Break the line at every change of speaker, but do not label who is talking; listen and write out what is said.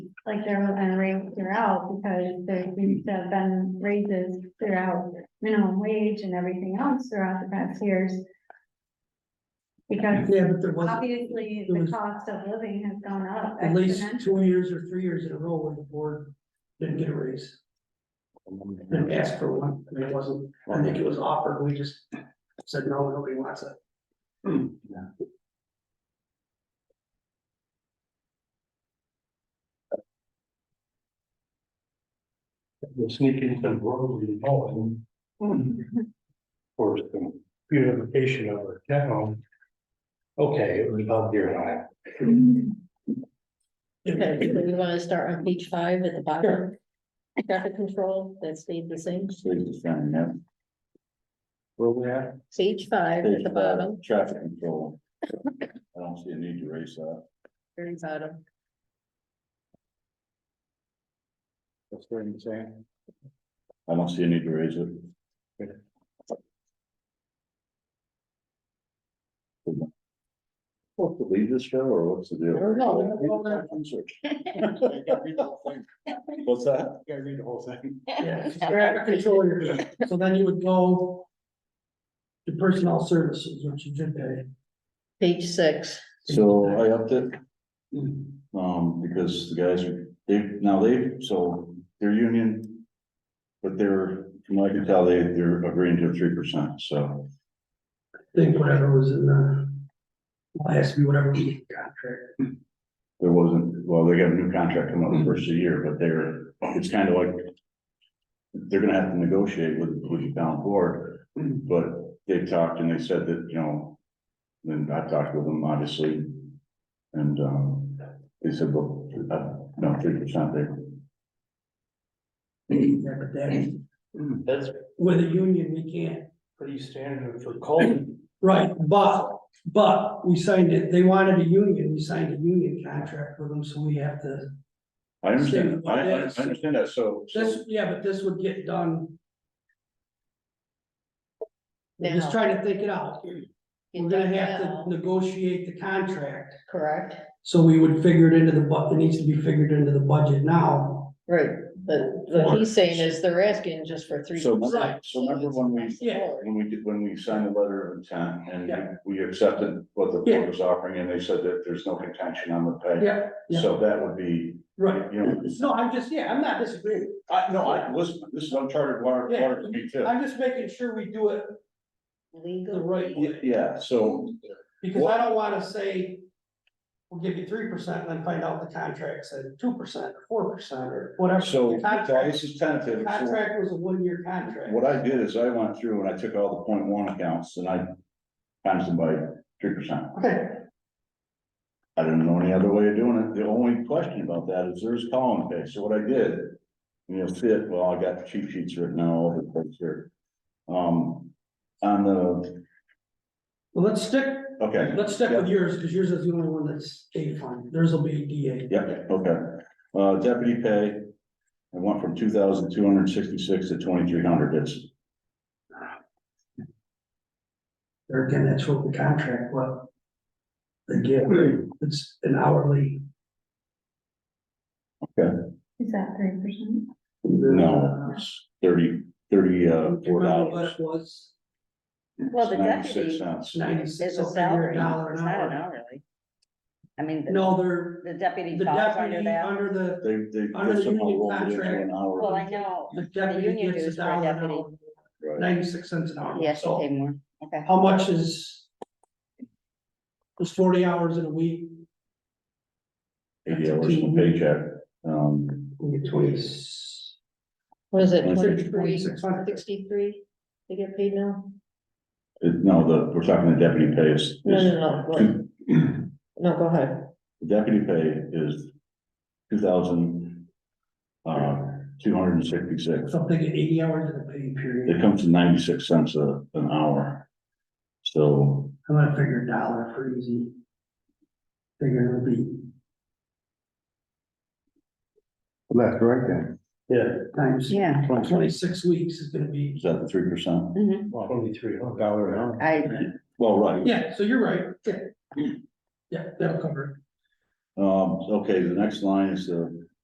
like they're gonna raise throughout, because there seems to have been raises throughout minimum wage and everything else throughout the past years. Because
Yeah, but there was
obviously
It
the
was-
cost of living has gone up
at least
exponentially.
two years or three years in a row where the board didn't get a raise, didn't ask for one, I mean, it wasn't, I think it was offered, we just said, no, nobody wants it.
We'll sneak in some road and all and. For some beautification of our town. Okay, it was about here and I.
Okay, do we wanna start on page five at the bottom. Traffic control, that stayed the same,
Please, sign that. Where we at?
page five at the bottom,
Traffic control. I don't see a need to raise that.
very bottom.
That's what I'm saying. I don't see a need to raise it. Supposed to leave this show or what's the deal?
No, no, we're not going there.
What's that? Gotta read the whole thing.
Yeah, traffic control, you're good. so then you would go. To personnel services, which you did pay.
Page six,
So I upped it. Um, because the guys, are they, now they, so they're union. But they're, from what I can tell, they, they're agreeing to three percent, so
think whatever was in the. Last, whatever we contract,
there wasn't, well, they got a new contract coming up the first of the year, but they're, it's kind of like. They're gonna have to negotiate with, with the town board, but they talked and they said that, you know. Then I talked with them, obviously. And, um, they said, well, uh, no, three percent there.
yeah, but that,
Hmm, That's
with a union, we can't
pretty standard for Colton.
Right, but, but we signed it, they wanted a union, we signed a union contract with them, so we have to.
I understand,
Statement
I,
like
I
this.
I understand that, so,
This,
so,
yeah, but this would get done. We're
Now.
Just trying to think it out, we're gonna have to negotiate the contract,
correct,
so we would figure it into the bu, it needs to be figured into the budget now.
right, but what he's saying is they're asking just for three.
So,
percent.
so remember when we-
Yeah.
when we did, when we signed the letter of intent
Yeah.
and we we accepted what the
Yeah.
board was offering and they said that there's no contention on the pay.
Yeah, yeah,
So that would be,
right,
you know,
no, I'm just, yeah, I'm not disagreeing,
I, no, I, listen, this is uncharted water,
Yeah.
water for me too.
I'm just making sure we do it the right
Legal.
Y-
way,
Yeah, so,
because I don't wanna say. We'll give you three percent and then find out the contract said two percent, or four percent, or whatever.
so,
The
so
contract-
this is tentative, so
Contract was a one-year contract.
What I did is I went through and I took all the point one accounts and I times them by three percent.
Okay,
I didn't know any other way of doing it. The only question about that is there's column pay. So what I did, and you'll see it, well, I got the cheat sheets written out all over the place here. Um, on the,
well, let's stick,
okay,
let's stick with yours, because yours is the only one that's A fund, theirs will be DA.
yeah, okay. Uh, deputy pay, I went from two thousand two hundred sixty-six to twenty-three hundred. It's,
There again, that's what the contract, well. They get,
Hmm.
it's an hourly.
Is that three percent?
no, it's thirty, thirty, uh, four dollars.
What it was,
Well, the
Ninety-six
deputy
cents.
ninety-six,
is
so
a
it's a year,
salary, it's
a dollar an
not an
hour.
hourly. I mean, the
No, they're,
the deputy
the
falls under
deputy
that.
under the,
They, they
Under the
they somehow
union
rolled it into
contract.
an hour.
Well, I know,
the
the
deputy
union
gets
dues for
a
a
dollar an
deputy,
hour,
Right.
ninety-six cents an hour.
he has to
so
pay more, okay.
How much is? Is forty hours in a week,
Eighty hours in a paycheck. Um,
we get twenty.
What is it,
Twenty-six,
twenty-three,
twenty-six.
sixty-three, they get paid now?
It, no, the, we're talking the deputy pay is.
No,
is-
no, no, what- no, go ahead,
the Deputy pay is two thousand, uh, two hundred and sixty-six.
Something at eighty hours in a pay period,
It comes to ninety-six cents a, an hour. So,
I'm gonna figure a dollar for easy. Figure it'll be
Left, right then. Yeah.
times
Yeah,
twenty-six weeks is gonna be,
is that the three percent?
Twenty-three, oh, dollar an hour.
I,
Well, right,
yeah, so you're right, yeah. Yeah, that'll cover
um, okay, the next line is the